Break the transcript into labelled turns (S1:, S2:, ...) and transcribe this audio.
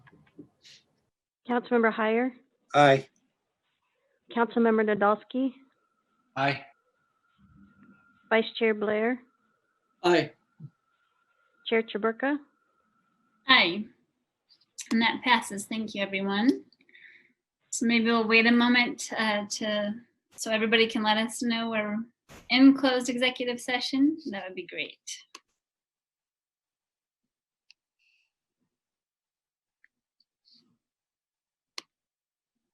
S1: Councilmember Hyer,
S2: Aye.
S1: Councilmember Nadolski,
S3: Aye.
S1: Vice Chair Blair,
S3: Aye.
S1: Chair Chaburka.
S4: Aye. And that passes. Thank you, everyone. So maybe we'll wait a moment uh, to, so everybody can let us know we're in closed executive session. That would be great.